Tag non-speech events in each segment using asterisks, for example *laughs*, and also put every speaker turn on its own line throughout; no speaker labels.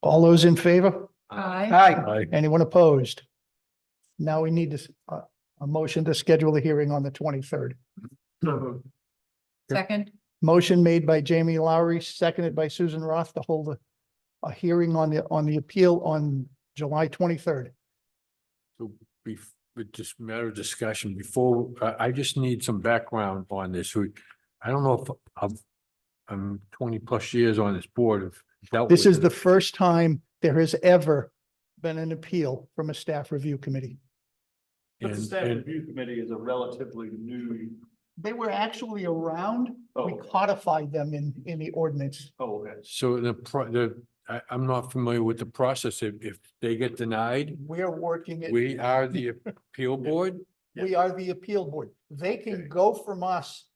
All those in favor?
Aye.
Aye.
Aye.
Anyone opposed? Now we need to s- a, a motion to schedule a hearing on the twenty-third.
Second.
Motion made by Jamie Lowry, seconded by Susan Roth to hold a, a hearing on the, on the appeal on July twenty-third.
Bef but just matter of discussion before, I, I just need some background on this. We, I don't know if I'm, I'm twenty plus years on this board of.
This is the first time there has ever been an appeal from a staff review committee.
But the staff review committee is a relatively new,
They were actually around.
oh,
We
okay.
codified them in, in the ordinance.
oh, okay.
So the, pro- the, I, I'm not familiar with the process. If, if they get denied,
We're working it.
we are the appeal board?
We are the appeal board. They can
Okay.
go from us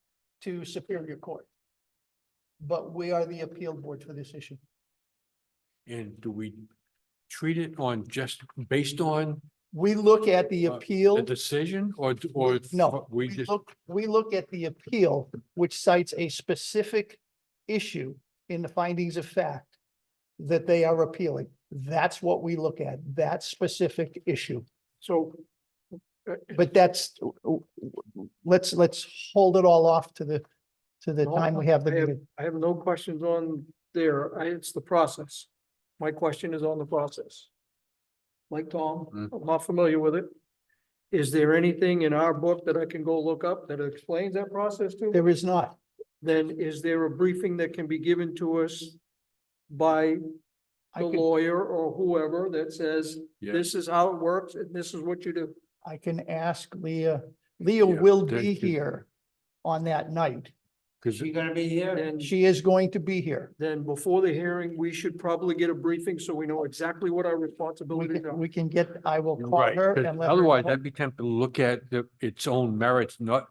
to Superior Court. But we are the appeal board for this issue.
And do we treat it on just based on
We look at the
Uh,
appeal.
the decision or, or?
No,
We
we
just,
look, we look at the appeal, which cites a specific issue in the findings of fact that they are appealing. That's what we look at, that specific issue.
So
But that's, let's, let's hold it all off to the, to the
No,
time we have the
I have-
meeting.
I have no questions on there. I, it's the process. My question is on the process. Like Tom,
Mm.
I'm not familiar with it. Is there anything in our book that I can go look up that explains that process to?
There is not.
Then is there a briefing that can be given to us by
I
the
could-
lawyer or whoever that says,
Yeah.
this is how it works and this is what you do?
I can ask Leah, Leah
Yeah,
will
thank
be
you.
here on that night.
because
gonna be here?
And
She is going to be here.
then before the hearing, we should probably get a briefing so we know exactly what our
We
responsibilities are.
can, we can get, I will call
Right,
her
'cause
and let her
otherwise
know.
I'd be tempted to look at the, its own merits, not,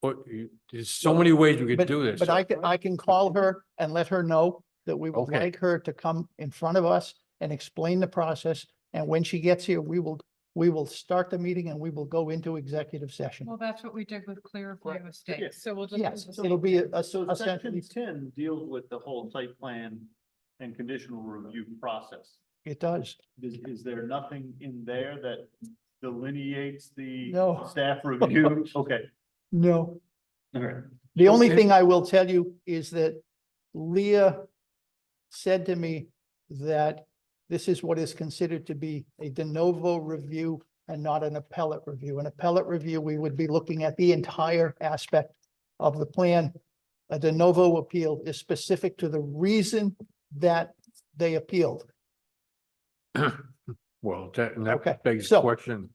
but you- there's so many ways we could do this.
But uh, I can, I can call her and let her know that we would
Okay.
like her to come in front of us and explain the process. And when she gets here, we will, we will start the meeting and we will go into executive session.
Well, that's what we did with clear
Right.
of mistakes. So we'll just. do
Yes,
the
it'll
same
be a,
thing.
a-
So section
essentially,
ten deals with the whole site plan and conditional review process.
it does.
Is, is there nothing in there that delineates the
*laughs* No.
staff review? Okay,
No.
all right.
The only
Okay.
thing I will tell you is that Leah said to me that this is what is considered to be a de novo review and not an appellate review. An appellate review, we would be looking at the entire aspect of the plan. A de novo appeal is specific to the reason that they appealed.
Well, that, and
Okay,
that begs
so-
the question,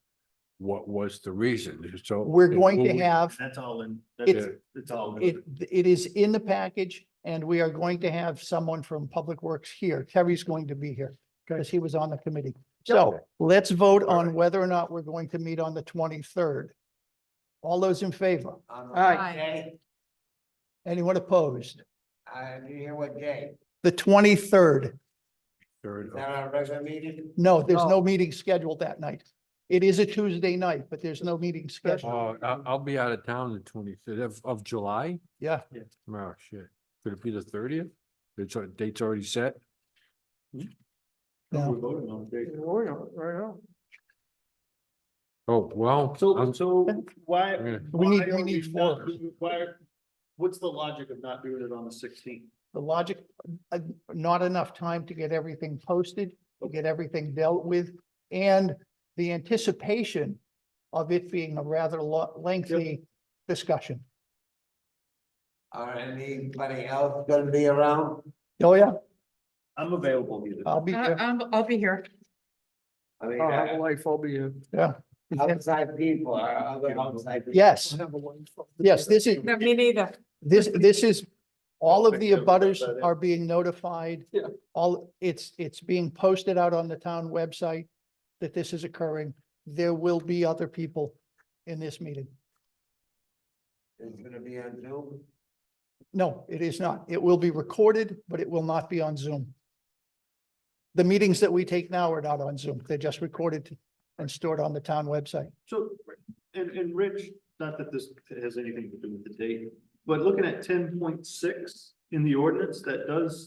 what was the reason? So.
We're
if-
going
will
to
we-
have
That's all in, that's,
It's-
it's all. in.
It, it is in the package and we are going to have someone from Public Works here. Terry's going to be here because he was on the committee. So let's vote on whether or not we're going to meet on the twenty-third. All those in favor?
Aye.
Anyone opposed?
Uh, do you hear what day?
The twenty-third.
Third
Is
of-
that our regular meeting?
No, there's no
No.
meeting scheduled that night. It is a Tuesday night, but there's no meeting scheduled.
Oh, I, I'll be out of town the twenty-third of, of July?
Yeah.
Oh, shit. Could it be the thirtieth? It's, al- date's already set?
We're
No.
voting on it.
We're not, right now.
Oh, well.
So,
I'm-
so why?
Yeah.
We need-
why
we
are
need
not
four.
doing- Why, are- what's the logic of not doing it on the sixteenth?
The logic, uh, not enough time to get everything posted, to get everything dealt with, and the anticipation of it being a rather lo- lengthy discussion.
Or anybody else gonna be around?
Oh, yeah,
I'm available either.
I'll be
I-
there.
I'm- Uh, I'll be here.
I mean,
I'll have a
uh,
life, I'll be here.
Yeah,
outside people or other outside. people.
yes,
I'll have a life.
yes, this is,
No, Me neither.
this, this is, all of
Think
the
so, but
abutters
that-
are being notified.
Yeah.
All, it's, it's being posted out on the town website that this is occurring. There will be other people in this meeting.
It's gonna be on Zoom.
No, it is not. It will be recorded, but it will not be on Zoom. The meetings that we take now are not on Zoom. They're just recorded and stored on the town website.
So, and, and Rich, not that this has anything to do with the date, but looking at ten point six in the ordinance, that does